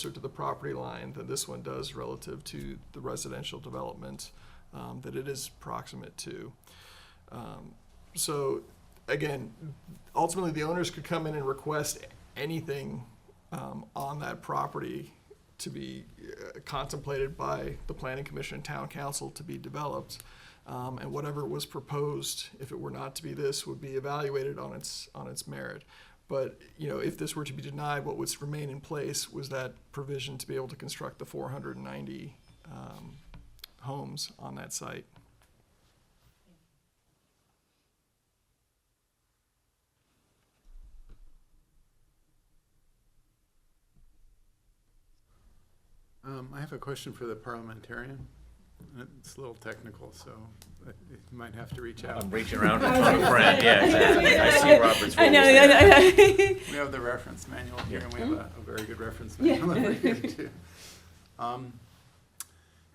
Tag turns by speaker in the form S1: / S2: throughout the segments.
S1: closer to the property line than this one does relative to the residential development um, that it is proximate to. Um, So again, ultimately, the owners could come in and request anything um, on that property to be uh, contemplated by the planning commission and town council to be developed. Um, And whatever was proposed, if it were not to be this, would be evaluated on its, on its merit. But, you know, if this were to be denied, what would remain in place was that provision to be able to construct the four hundred and ninety um, homes on that site.
S2: Um, I have a question for the parliamentarian. It's a little technical, so uh, you might have to reach out.
S3: I'm reaching around and trying to friend, yeah, exactly. I see Robert's rules
S4: I know,
S3: there.
S4: I know,
S2: We have the reference manual here, and we have a, a very good reference
S4: Yeah.
S2: manual over here, too. Um,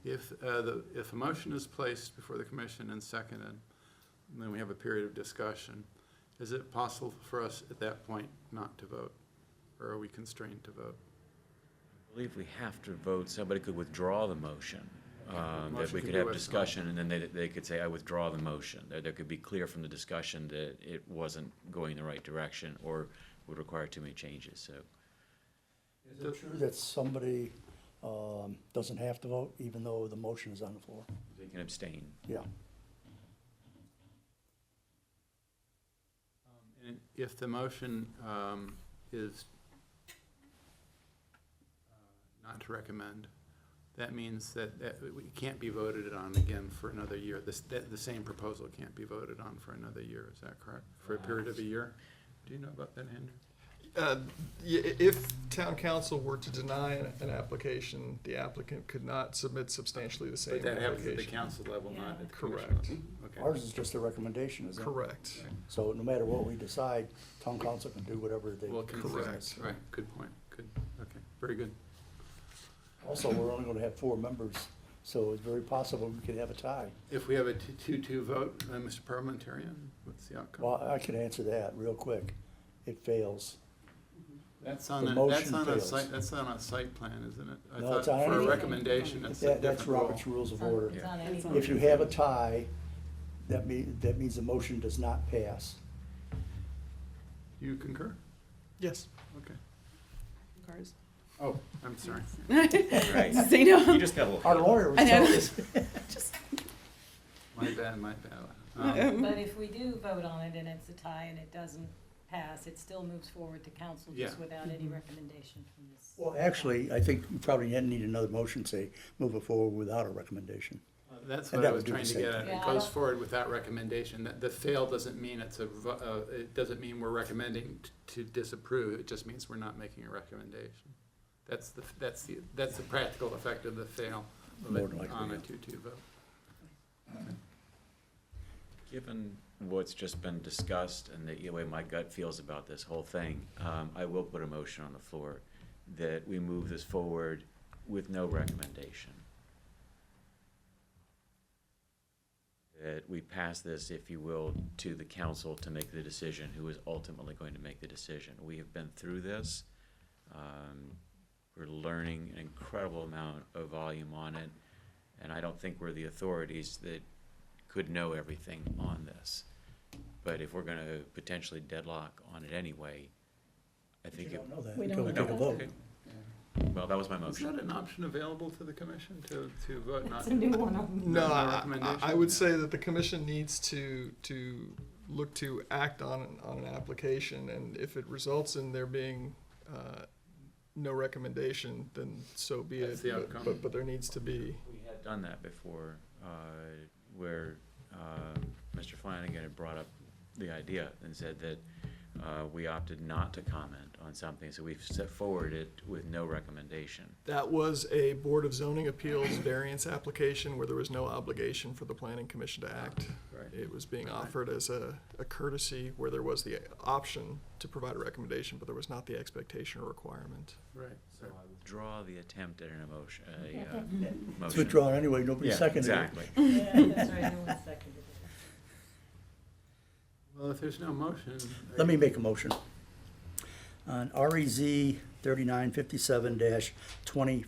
S2: If, uh, the, if a motion is placed before the commission and seconded, and then we have a period of discussion, is it possible for us at that point not to vote? Or are we constrained to vote?
S3: I believe we have to vote, somebody could withdraw the motion. um,
S2: Motion
S3: That we
S2: could
S3: could
S2: be
S3: have
S2: withdrawn.
S3: discussion, and then they, they could say, I withdraw the motion. That, that could be clear from the discussion that it wasn't going in the right direction or would require too many changes, so.
S5: Is it true that somebody um, doesn't have to vote even though the motion is on the floor?
S3: They can abstain.
S5: Yeah.
S2: Um, And If the motion um, is uh, not to recommend, that means that that it can't be voted on again for another year. This- that- The same proposal can't be voted on for another year, is that correct? For a period of a year? Do you know about that, Andrew?
S1: Uh, y- If town council were to deny an an application, the applicant could not submit substantially the
S2: But
S1: same
S2: that happens at the
S1: application.
S2: council level, not at the commission
S1: Correct.
S2: level.
S5: Ours
S2: Okay.
S5: is just a recommendation, isn't it?
S1: Correct.
S5: So no matter what we decide, town council can do whatever they.
S2: Well, consider,
S1: Correct.
S2: right, good point, good, okay, very good.
S5: Also, we're only gonna have four members, so it's very possible we could have a tie.
S2: If we have a two- two-two vote, uh, Mr. Parliamentarian, what's the outcome?
S5: Well, I can answer that real quick. It fails.
S2: That's on
S5: The
S2: a, that's
S5: motion
S2: on a
S5: fails.
S2: site, that's on a site plan, isn't it? I
S5: No,
S2: thought
S5: it's on
S2: for a
S5: anything.
S2: recommendation, it's a
S5: That, that's
S2: different rule.
S5: Robert's Rules of Order.
S3: Yeah.
S5: If you have a tie, that mean, that means the motion does not pass.
S2: Do you concur?
S1: Yes.
S2: Okay. Oh, I'm sorry.
S3: Right. You
S4: Zeno.
S3: just got a little.
S5: Our lawyer was
S4: I know.
S5: telling us.
S2: My bad, my bad. Um,
S6: But if we do vote on it and it's a tie and it doesn't pass, it still moves forward to council just
S2: Yeah.
S6: without any recommendation from this.
S5: Well, actually, I think we probably didn't need another motion, say, move it forward without a recommendation.
S2: That's
S5: And
S2: what I
S5: that
S2: was
S5: would do the
S2: trying to
S5: same
S2: get at.
S6: thing.
S2: It
S6: Yeah, I
S2: goes
S6: don't-
S2: forward without recommendation. That The fail doesn't mean it's a, vo- uh, it doesn't mean we're recommending t- to disapprove. It just means we're not making a recommendation. That's the, that's the, that's the practical effect of the fail of
S5: More than
S2: it
S5: likely,
S2: on a
S5: yeah.
S2: two-two vote.
S3: Given what's just been discussed and the way my gut feels about this whole thing, um, I will put a motion on the floor that we move this forward with no recommendation. That we pass this, if you will, to the council to make the decision, who is ultimately going to make the decision. We have been through this. Um, we're learning an incredible amount of volume on it, and I don't think we're the authorities that could know everything on this. But if we're gonna potentially deadlock on it anyway, I
S5: You
S3: think it,
S5: don't know that
S6: We
S5: until we
S6: don't
S5: take a
S6: know.
S5: vote.
S3: well, that was my
S2: Is that
S3: motion.
S2: an option available to the commission to, to vote not?
S6: That's a new one on
S1: No,
S2: No, no
S1: I- I,
S2: recommendation.
S1: I would say that the commission needs to, to look to act on, an- on an application, and if it results in there being, uh, no recommendation, then so be it.
S2: That's the outcome.
S1: But, but there needs to be,
S3: We had done that before, uh, where, uh, Mr. Flanagan had brought up the idea and said that, uh, we opted not to comment on something, so we've set forward it with no recommendation.
S1: that was a Board of Zoning Appeals variance application where there was no obligation for the planning commission to act.
S2: Right.
S1: It was being offered as a, a courtesy where there was the option to provide a recommendation, but there was not the expectation or requirement.
S2: Right.
S3: So I withdraw the attempt at an emotion, a, uh, motion.
S5: It's withdrawn anyway, nobody
S3: Yeah,
S5: seconded it.
S3: exactly.
S6: Yeah, that's right, no one seconded it.
S2: Well, if there's no motion.
S5: E Let me make a motion. On REZ thirty-nine fifty-seven dash twenty